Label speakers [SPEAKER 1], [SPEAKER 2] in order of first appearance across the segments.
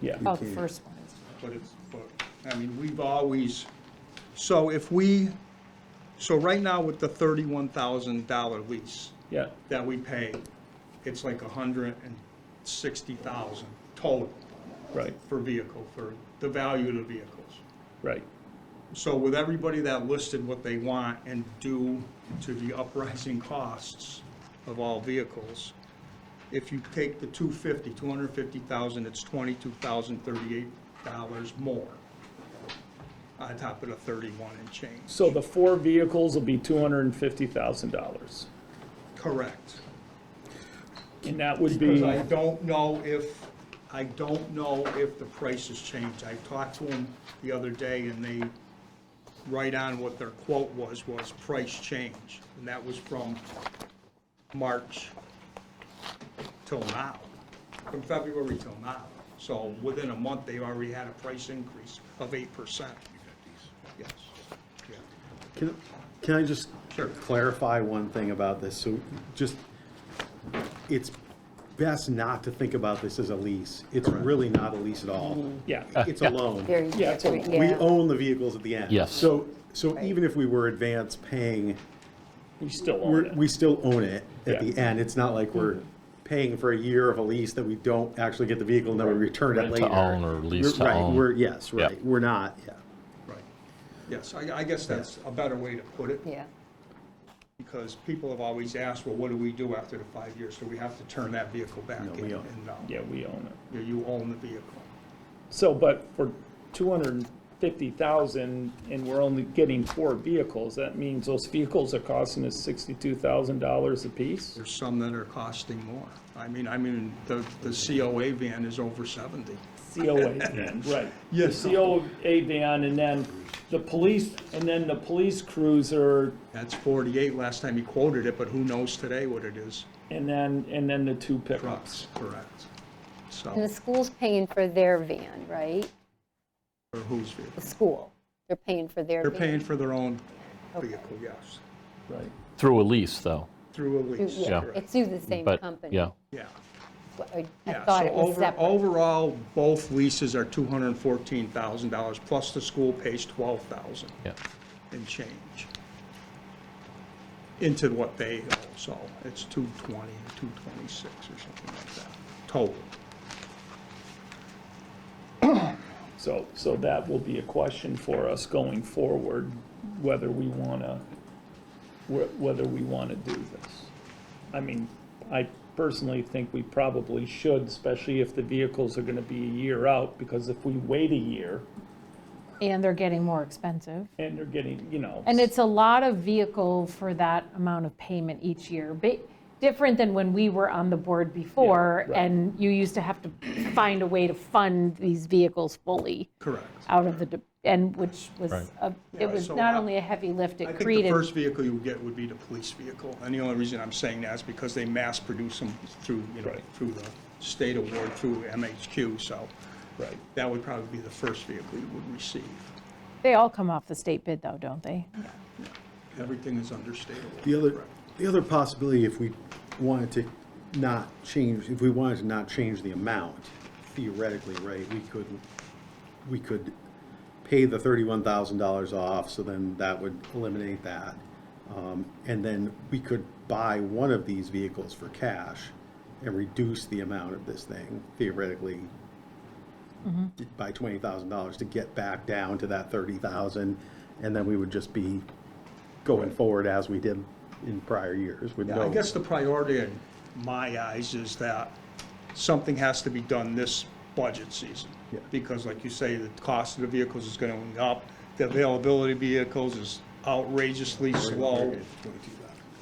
[SPEAKER 1] Yeah.
[SPEAKER 2] Oh, the first one is.
[SPEAKER 3] But it's, but, I mean, we've always, so if we, so right now with the thirty-one thousand dollar lease
[SPEAKER 1] Yeah,
[SPEAKER 3] that we pay, it's like a hundred and sixty thousand total
[SPEAKER 1] right,
[SPEAKER 3] for vehicle, for the value of the vehicles.
[SPEAKER 1] right.
[SPEAKER 3] So with everybody that listed what they want and due to the uprising costs of all vehicles, if you take the two fifty, two hundred fifty thousand, it's twenty-two thousand thirty-eight dollars more on top of the thirty-one and change.
[SPEAKER 1] So the four vehicles will be two hundred and fifty thousand dollars.
[SPEAKER 3] Correct.
[SPEAKER 1] And that would be,
[SPEAKER 3] Because I don't know if, I don't know if the price has changed. I talked to them the other day, and they, right on what their quote was, was price change. And that was from March till now, from February till now. So within a month, they already had a price increase of 8%. Yes. Yeah.
[SPEAKER 4] Can, can I just
[SPEAKER 3] Sure.
[SPEAKER 4] clarify one thing about this? So just, it's best not to think about this as a lease. It's really not a lease at all.
[SPEAKER 1] yeah,
[SPEAKER 4] It's a loan.
[SPEAKER 2] Mm-hmm. Very,
[SPEAKER 1] Yeah, it's a-
[SPEAKER 2] different,
[SPEAKER 4] We
[SPEAKER 2] yeah.
[SPEAKER 4] own the vehicles at the end.
[SPEAKER 5] Yes.
[SPEAKER 4] So, so
[SPEAKER 2] Right.
[SPEAKER 4] even if we were advanced paying,
[SPEAKER 1] we still own
[SPEAKER 4] we're,
[SPEAKER 1] it.
[SPEAKER 4] we still own it at
[SPEAKER 1] Yeah.
[SPEAKER 4] the end. It's not like we're
[SPEAKER 5] Mm-hmm.
[SPEAKER 4] paying for a year of a lease that we don't actually get the vehicle and then we return it
[SPEAKER 5] Rent
[SPEAKER 4] later.
[SPEAKER 5] to own or lease
[SPEAKER 4] We're-
[SPEAKER 5] to
[SPEAKER 4] right,
[SPEAKER 5] own.
[SPEAKER 4] We're, yes,
[SPEAKER 5] Yeah.
[SPEAKER 4] right. We're not, yeah.
[SPEAKER 3] Right. Yes, I I guess that's a better way to put it.
[SPEAKER 2] Yeah,
[SPEAKER 3] because people have always asked, well, what do we do after the five years? So we have to turn that vehicle back
[SPEAKER 4] No,
[SPEAKER 3] in,
[SPEAKER 4] we don't.
[SPEAKER 3] and, uh,
[SPEAKER 1] Yeah, we own it.
[SPEAKER 3] you- you own the vehicle.
[SPEAKER 1] So, but for two hundred and fifty thousand and we're only getting four vehicles, that means those vehicles are costing us sixty-two thousand dollars apiece?
[SPEAKER 3] There's some that are costing more. I mean, I mean, the, the COA van is over seventy.
[SPEAKER 1] COA van, right.
[SPEAKER 3] Yes.
[SPEAKER 1] The COA van and then the police, and then the police cruiser,
[SPEAKER 3] That's forty-eight last time he quoted it, but who knows today what it is?
[SPEAKER 1] and then, and then the two pickups.
[SPEAKER 3] Trucks, correct.
[SPEAKER 6] And the
[SPEAKER 3] So,
[SPEAKER 6] school's paying for their van, right?
[SPEAKER 3] or whose vehicle?
[SPEAKER 6] The school, they're paying for their
[SPEAKER 3] They're
[SPEAKER 6] van.
[SPEAKER 3] paying for their own vehicle, yes,
[SPEAKER 1] Right.
[SPEAKER 5] Through a lease, though.
[SPEAKER 3] through a lease.
[SPEAKER 6] Yeah,
[SPEAKER 3] correct.
[SPEAKER 6] it's through the same
[SPEAKER 5] But,
[SPEAKER 6] company.
[SPEAKER 5] yeah,
[SPEAKER 3] Yeah.
[SPEAKER 6] But I- I
[SPEAKER 3] Yeah,
[SPEAKER 6] thought
[SPEAKER 3] so
[SPEAKER 6] it was
[SPEAKER 3] over-
[SPEAKER 6] separate.
[SPEAKER 3] Overall, both leases are two hundred and fourteen thousand dollars, plus the school pays twelve thousand
[SPEAKER 5] yeah.
[SPEAKER 3] and change into what they owe, so it's two twenty, two twenty-six or something like that, total.
[SPEAKER 1] So, so that will be a question for us going forward, whether we want to, whether we want to do this. I mean, I personally think we probably should, especially if the vehicles are going to be a year out, because if we wait a year
[SPEAKER 2] And they're getting more expensive.
[SPEAKER 1] and they're getting, you know.
[SPEAKER 2] And it's a lot of vehicle for that amount of payment each year, but different than when we were on the board before,
[SPEAKER 1] right.
[SPEAKER 2] and you used to have to find a way to fund these vehicles fully
[SPEAKER 3] Correct.
[SPEAKER 2] out of the, de- and which was, a- it
[SPEAKER 3] Yeah,
[SPEAKER 2] was
[SPEAKER 3] so
[SPEAKER 2] not
[SPEAKER 3] I-
[SPEAKER 2] only a heavy lift,
[SPEAKER 3] I
[SPEAKER 2] it
[SPEAKER 3] think the
[SPEAKER 2] created.
[SPEAKER 3] first vehicle you would get would be the police vehicle, and the only reason I'm saying that is because they mass produce them through, you know,
[SPEAKER 1] Right.
[SPEAKER 3] through the state award, through MHQ, so
[SPEAKER 1] Right.
[SPEAKER 3] that would probably be the first vehicle you would receive.
[SPEAKER 2] They all come off the state bid though, don't they?
[SPEAKER 3] Everything is under state award.
[SPEAKER 4] The other,
[SPEAKER 3] correct.
[SPEAKER 4] the other possibility, if we wanted to not change, if we wanted to not change the amount, theoretically, right, we could, we could pay the thirty-one thousand dollars off, so then that would eliminate that. Um, and then we could buy one of these vehicles for cash and reduce the amount of this thing theoretically
[SPEAKER 2] Mm-hmm.
[SPEAKER 4] by twenty thousand dollars to get back down to that thirty thousand, and then we would just be going forward as we did in prior years with
[SPEAKER 3] Yeah, I
[SPEAKER 4] no.
[SPEAKER 3] guess the priority in my eyes is that something has to be done this budget season.
[SPEAKER 4] Yeah.
[SPEAKER 3] Because like you say, the cost of the vehicles is gonna go up, the availability of vehicles is outrageously slow.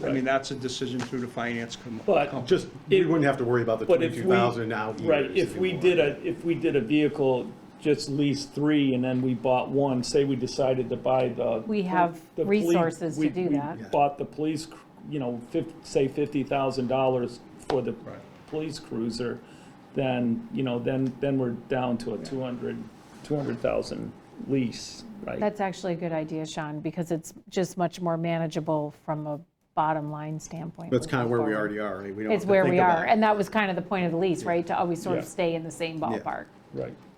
[SPEAKER 3] I mean, that's a decision through the finance com-
[SPEAKER 1] But-
[SPEAKER 3] company.
[SPEAKER 4] Just, we
[SPEAKER 1] It-
[SPEAKER 4] wouldn't have to worry about the
[SPEAKER 1] But if
[SPEAKER 4] twenty-two
[SPEAKER 1] we.
[SPEAKER 4] thousand out years.
[SPEAKER 1] Right, if we
[SPEAKER 4] anymore.
[SPEAKER 1] did a, if we did a vehicle, just lease three, and then we bought one, say we decided to buy the.
[SPEAKER 2] We have
[SPEAKER 1] the police-
[SPEAKER 2] resources to
[SPEAKER 1] we-
[SPEAKER 2] do
[SPEAKER 1] we
[SPEAKER 2] that.
[SPEAKER 1] Bought the police, cr- you know, fif, say fifty thousand dollars for the
[SPEAKER 3] Right.
[SPEAKER 1] police cruiser, then, you know, then, then we're down to a two hundred, two hundred thousand lease, right?
[SPEAKER 2] That's actually a good idea, Sean, because it's just much more manageable from a bottom line standpoint.
[SPEAKER 4] That's kind of where we
[SPEAKER 2] moving forward.
[SPEAKER 4] already are, right? We don't
[SPEAKER 2] It's
[SPEAKER 4] have to
[SPEAKER 2] where
[SPEAKER 4] think
[SPEAKER 2] we
[SPEAKER 4] about
[SPEAKER 2] are,
[SPEAKER 4] it.
[SPEAKER 2] and that was kind of the point of the lease, right? To always sort of
[SPEAKER 1] Yeah.
[SPEAKER 2] stay in the same ballpark.
[SPEAKER 1] right.